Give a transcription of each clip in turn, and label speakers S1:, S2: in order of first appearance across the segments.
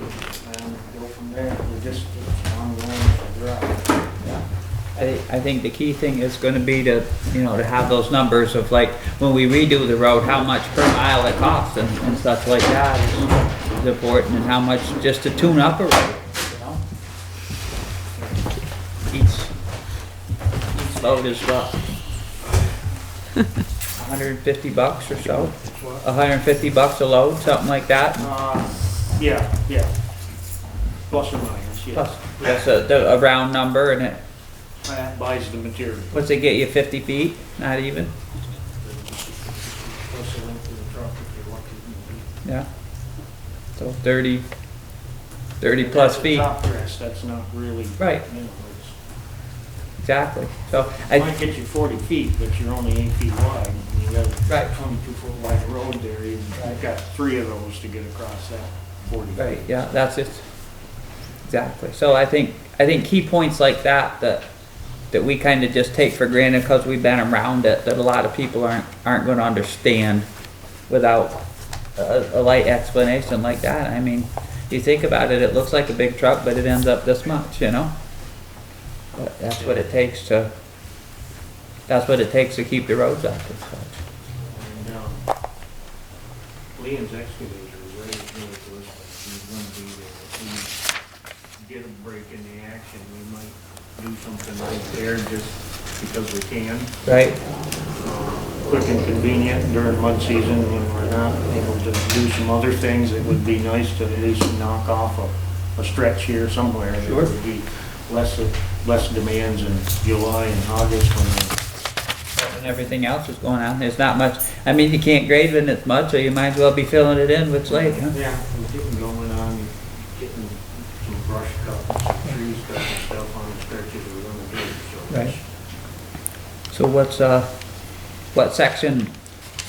S1: and go from there. We just, it's ongoing drive.
S2: I, thi- I think the key thing is gonna be to, you know, to have those numbers of like, when we redo the road, how much per mile it costs and, and stuff like that is- is important, and how much just to tune up a road, you know? Each, each load is what? hundred and fifty bucks or so? hundred and fifty bucks a load, something like that,
S1: Uh, yeah, yeah. Plus or minus, yeah.
S2: plus, that's a, the- a round number, and it,
S1: That buys the material.
S2: what's it get you, fifty feet? Not even,
S1: Plus the length of the truck if you're lucky.
S2: yeah. So thirty, thirty plus feet,
S1: Top dress, that's not really.
S2: Right.
S1: you know,
S2: exactly, so,
S1: It
S2: I,
S1: might get you forty feet, but you're only eight feet wide. and You got
S2: Right.
S1: a twenty-two foot wide road there. and You've got three of those to get across that forty.
S2: right, yeah, that's it. Exactly, so I think, I think key points like that, that, that we kinda just take for granted, cause we've been around it, that a lot of people aren't, aren't gonna understand without a, a light explanation like that, I mean, you think about it, it looks like a big truck, but it ends up this much, you know? But that's what it takes to, that's what it takes to keep the roads up and such.
S1: And, um, Liam's excavator is ready to do it to us, but he's gonna be there. If we get a break in the action, we might do something right there just because we can.
S2: Right,
S1: Quick and convenient during mud season when we're not able to do some other things, it would be nice to at least knock off a, a stretch here somewhere. There
S2: Sure.
S1: would be Less, less demands in July and August when
S2: and everything else is going on, there's not much, I mean, you can't grade when it's mud, so you might as well be filling it in with slate, huh?
S1: Yeah, we're getting going on, getting some brush cut, some trees cut and stuff on the stretches we're gonna do, so.
S2: Right. So what's, uh, what section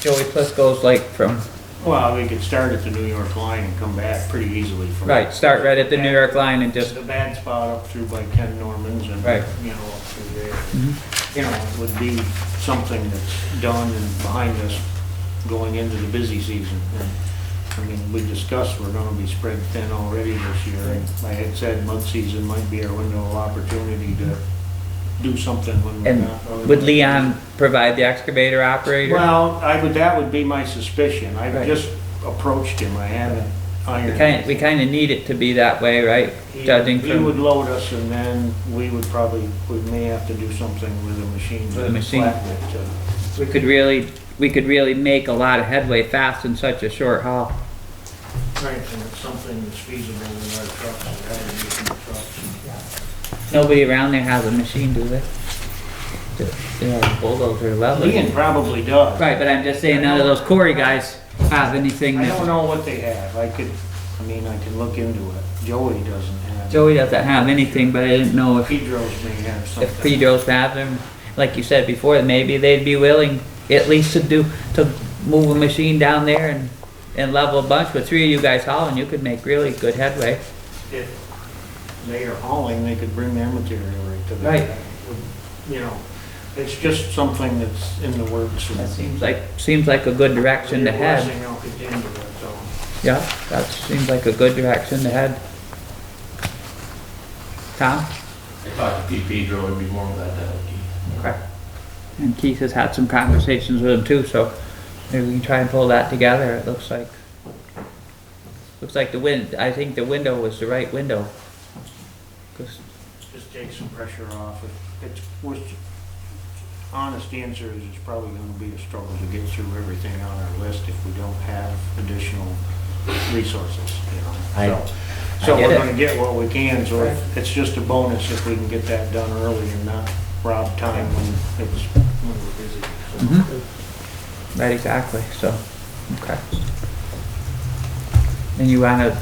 S2: Joey Plisco's like from,
S1: Well, we could start at the New York line and come back pretty easily from.
S2: right, start right at the New York line and
S1: Just the
S2: just,
S1: bad spot up through by Ken Norman's and,
S2: Right.
S1: you know, up through there. You know, it would be something that's done and behind us going into the busy season. And, I mean, we discussed, we're gonna be spread thin already this year. And I had said mud season might be our window of opportunity to do something when we're
S2: And
S1: not.
S2: would Leon provide the excavator operator?
S1: Well, I would, that would be my suspicion. I've
S2: Right.
S1: just approached him. I haven't
S2: We
S1: ironed.
S2: kind, we kinda need it to be that way, right?
S1: He-
S2: Judging
S1: He would
S2: from,
S1: load us and then we would probably, we may have to do something with a machine.
S2: With a
S1: to
S2: machine.
S1: flatten it uh, to-
S2: we could really, we could really make a lot of headway fast in such a short haul.
S1: Right, and it's something that's feasible with our trucks, we gotta do some trucks.
S2: Nobody around there has a machine, do they? They have a bulldozer level.
S1: Lean probably does.
S2: Right, but I'm just saying none of those Corey guys have anything
S1: I don't
S2: that,
S1: know what they have. I could, I mean, I can look into it. Joey doesn't have.
S2: Joey doesn't have anything, but I didn't know if,
S1: Pedro's may have
S2: if
S1: something.
S2: Pedro's have them. Like you said before, maybe they'd be willing at least to do, to move a machine down there and, and level a bunch with three of you guys hauling, you could make really good headway.
S1: If they are hauling, they could bring their material right to the.
S2: Right.
S1: You know, it's just something that's in the works. and-
S2: That seems like, seems like a good direction to
S1: Your
S2: head.
S1: blessing, I'll continue it, so.
S2: Yeah, that seems like a good direction to head. Tom?
S3: I talked to Pete Pedro, it'd be more about that.
S2: Okay. And Keith has had some conversations with him too, so maybe we can try and pull that together, it looks like. Looks like the wind, I think the window was the right window. 'Cause-
S1: Just take some pressure off. If It's, which, honest answer is it's probably gonna be a struggle to get through everything on our list if we don't have additional resources, you know?
S2: I-
S1: So-
S2: I
S1: So
S2: get
S1: we're
S2: it.
S1: gonna get what we can, so if- it's just a bonus if we can get that done early and not rob time when it's, when we're busy. so.
S2: Mhm. Right, exactly, so, okay. And you wanna,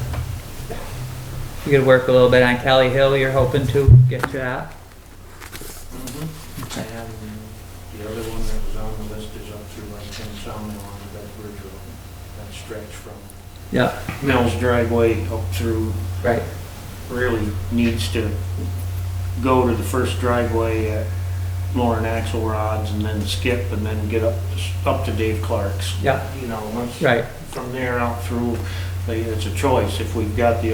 S2: you could work a little bit on Kelly Hill, you're hoping to get to that?
S1: Mhm. And the other one that was on the list is up through like Ken Sawmill on the Bedford Road, that stretch from
S2: Yep.
S1: Mills driveway up through,
S2: Right,
S1: really needs to go to the first driveway at Lauren Axelrod's and then skip and then get up, up to Dave Clark's.
S2: Yep.
S1: You know, once,
S2: right.
S1: from there out through, like, it's a choice. If we've got the